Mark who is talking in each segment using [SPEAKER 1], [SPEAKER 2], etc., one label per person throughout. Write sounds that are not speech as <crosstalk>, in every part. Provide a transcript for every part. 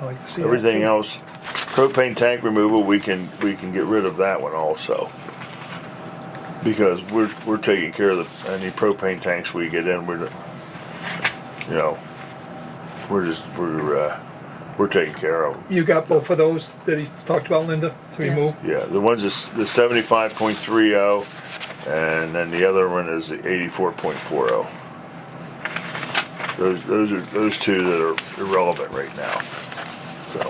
[SPEAKER 1] I like to see that.
[SPEAKER 2] Everything
[SPEAKER 1] too.
[SPEAKER 2] else, propane tank removal, we can, we can get rid of that one also. Because we're, we're taking care of the, any propane tanks we get in, we're, you know, we're just, we're, uh, we're taking care of 'em.
[SPEAKER 1] You got both of those that he talked about, Linda, to
[SPEAKER 3] Yes.
[SPEAKER 1] remove?
[SPEAKER 2] Yeah, the one's is the seventy-five point three oh, and then the other one is the eighty-four point four oh. Those, those are, those two that are irrelevant right now, so.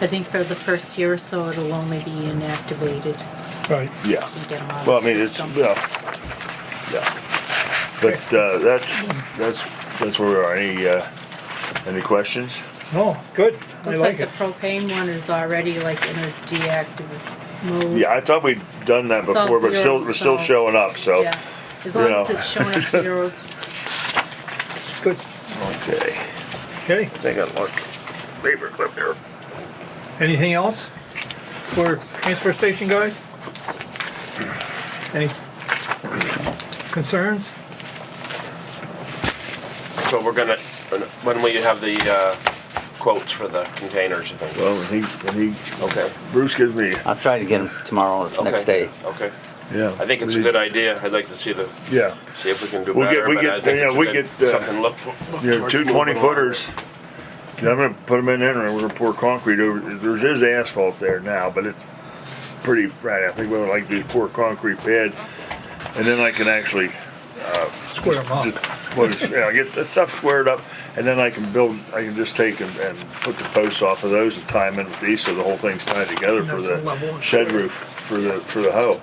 [SPEAKER 3] I think for the first year or so, it'll only be inactivated.
[SPEAKER 1] Right.
[SPEAKER 2] Yeah,
[SPEAKER 3] You get them out of
[SPEAKER 2] well, I mean,
[SPEAKER 3] the
[SPEAKER 2] it's,
[SPEAKER 3] system.
[SPEAKER 2] yeah, yeah. But, uh, that's, that's, that's where we are. Any, uh, any questions?
[SPEAKER 1] No, good. I
[SPEAKER 3] Looks like
[SPEAKER 1] like
[SPEAKER 3] the
[SPEAKER 1] it.
[SPEAKER 3] propane one is already like in a deactive mode.
[SPEAKER 2] Yeah, I thought we'd done that
[SPEAKER 3] It's all
[SPEAKER 2] before, but still,
[SPEAKER 3] zeros,
[SPEAKER 2] we're still
[SPEAKER 3] so-
[SPEAKER 2] showing up, so.
[SPEAKER 3] Yeah. As long
[SPEAKER 2] you
[SPEAKER 3] as
[SPEAKER 2] know. <laughs>
[SPEAKER 3] it's showing up zeros.
[SPEAKER 1] It's good.
[SPEAKER 2] Okay,
[SPEAKER 1] Okay,
[SPEAKER 2] take a look. Paper clip here.
[SPEAKER 1] anything else for transfer station guys? Any concerns?
[SPEAKER 4] So we're gonna, when will you have the uh, quotes for the containers, you think?
[SPEAKER 2] Well, when he, when he,
[SPEAKER 4] Okay.
[SPEAKER 2] Bruce gives me,
[SPEAKER 5] I'll try to get them tomorrow or
[SPEAKER 4] Okay.
[SPEAKER 5] next day.
[SPEAKER 4] Okay.
[SPEAKER 2] yeah.
[SPEAKER 4] I think it's a good idea. I'd like to see the,
[SPEAKER 2] Yeah,
[SPEAKER 4] see if we can do
[SPEAKER 2] We'll get-
[SPEAKER 4] better,
[SPEAKER 2] we
[SPEAKER 4] but
[SPEAKER 2] get-
[SPEAKER 4] I think
[SPEAKER 2] yeah,
[SPEAKER 4] it's a
[SPEAKER 2] we
[SPEAKER 4] good-
[SPEAKER 2] get, uh,
[SPEAKER 4] something to look for.
[SPEAKER 2] you know, two twenty footers. I'm gonna put them in there and we're gonna pour concrete over, there is asphalt there now, but it's pretty, right, I think we would like to pour concrete pad. And then I can actually,
[SPEAKER 1] Square them
[SPEAKER 2] just,
[SPEAKER 1] up.
[SPEAKER 2] well, just, you know, get the stuff squared up and then I can build, I can just take and, and put the posts off of those and tie them in with these, so the whole thing's tied together for
[SPEAKER 1] That's a level
[SPEAKER 2] the
[SPEAKER 1] and
[SPEAKER 2] shed roof, for the, for the hoe.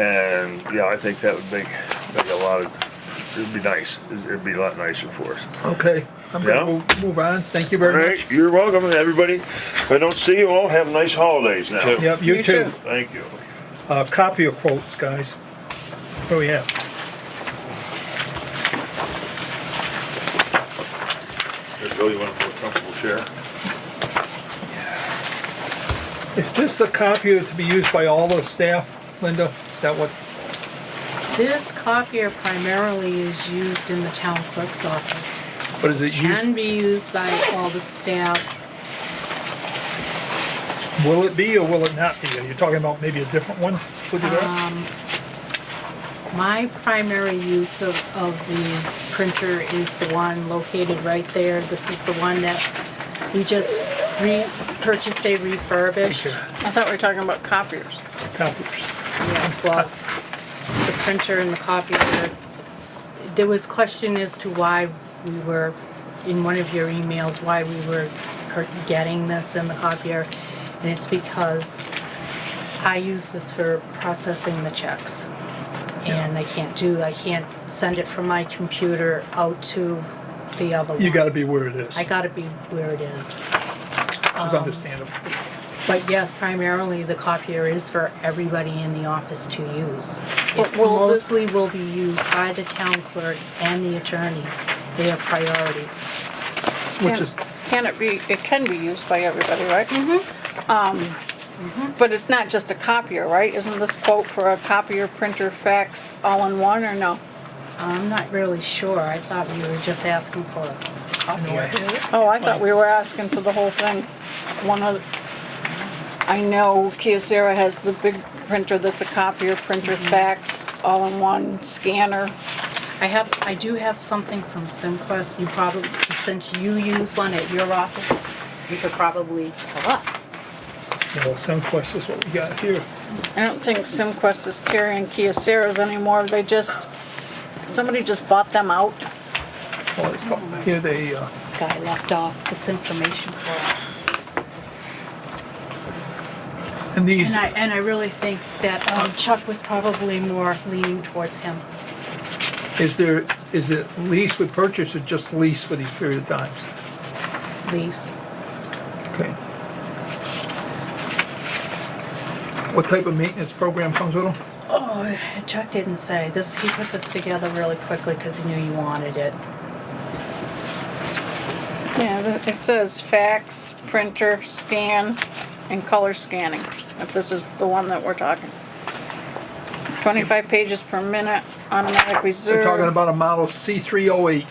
[SPEAKER 2] And, yeah, I think that would make, make a lot of, it'd be nice, it'd be a lot nicer for us.
[SPEAKER 1] Okay, I'm gonna
[SPEAKER 2] Yeah.
[SPEAKER 1] move- move on. Thank you very
[SPEAKER 2] All
[SPEAKER 1] much.
[SPEAKER 2] right, you're welcome, everybody. If I don't see you all, have nice holidays now.
[SPEAKER 4] You too.
[SPEAKER 1] Yep, you
[SPEAKER 3] You
[SPEAKER 1] too.
[SPEAKER 3] too.
[SPEAKER 2] Thank you.
[SPEAKER 1] Uh, copy of quotes, guys. Oh, What do we have?
[SPEAKER 2] Bill, you want to put a comfortable chair?
[SPEAKER 1] Is this a copy to be used by all the staff, Linda? Is that what?
[SPEAKER 3] This copier primarily is used in the town clerk's office.
[SPEAKER 1] What is it used?
[SPEAKER 3] Can be used by all the staff.
[SPEAKER 1] Will it be or will it not be? Are you talking about maybe a different one? Would you do
[SPEAKER 3] Um, My primary use of, of the printer is the one located right there. This is the one that we just re-purchased a refurbished.
[SPEAKER 6] I thought we were talking about copiers.
[SPEAKER 1] that? Copiers.
[SPEAKER 3] Yes, well, the printer and the copier, there was question as to why we were, in one of your emails, why we were cur- getting this and the copier. And it's because I use this for processing the checks. And I can't do, I can't send it from my computer out to the other one.
[SPEAKER 1] You gotta be where it is,
[SPEAKER 3] I um,
[SPEAKER 1] which
[SPEAKER 3] gotta be where it is.
[SPEAKER 1] is understandable.
[SPEAKER 3] But yes, primarily the copier is for everybody in the office to use. It
[SPEAKER 6] But will this-
[SPEAKER 3] mostly will be used by the town clerk and the attorneys. They are priority.
[SPEAKER 1] Which
[SPEAKER 6] Can-
[SPEAKER 1] is,
[SPEAKER 6] Can it be, it can be used by everybody, right? Mm-hmm. Um, but it's not just a copier, right? Isn't this quote for a copier, printer, fax, all in one, or no?
[SPEAKER 3] I'm not really sure. I thought we were just asking for a copier.
[SPEAKER 6] Oh, I thought we were asking for the whole thing. One of, I know Kyocera has the big printer that's a copier, printer, fax, all in one, scanner.
[SPEAKER 3] I have, I do have something from Simquest. You probably, since you use one at your office, you could probably tell us.
[SPEAKER 1] so some questions, what we got here.
[SPEAKER 6] I don't think SimQuest is carrying Kyocera's anymore. They just, somebody just bought them out.
[SPEAKER 1] Well, it's talking- Here they, uh,
[SPEAKER 3] This guy left off this information for us.
[SPEAKER 1] and these,
[SPEAKER 3] And I, and I really think that um, Chuck was probably more leaning towards him.
[SPEAKER 1] is there, is it lease with purchase or just lease for these period of times?
[SPEAKER 3] lease.
[SPEAKER 1] Okay. What type of maintenance program comes with them?
[SPEAKER 3] Oh, Chuck didn't say this. He put this together really quickly because he knew you wanted it.
[SPEAKER 6] Yeah, th- it says fax, printer, scan, and color scanning, if this is the one that we're talking. Twenty-five pages per minute, automatic
[SPEAKER 1] They're talking
[SPEAKER 6] reserve.
[SPEAKER 1] about a model C three oh eight.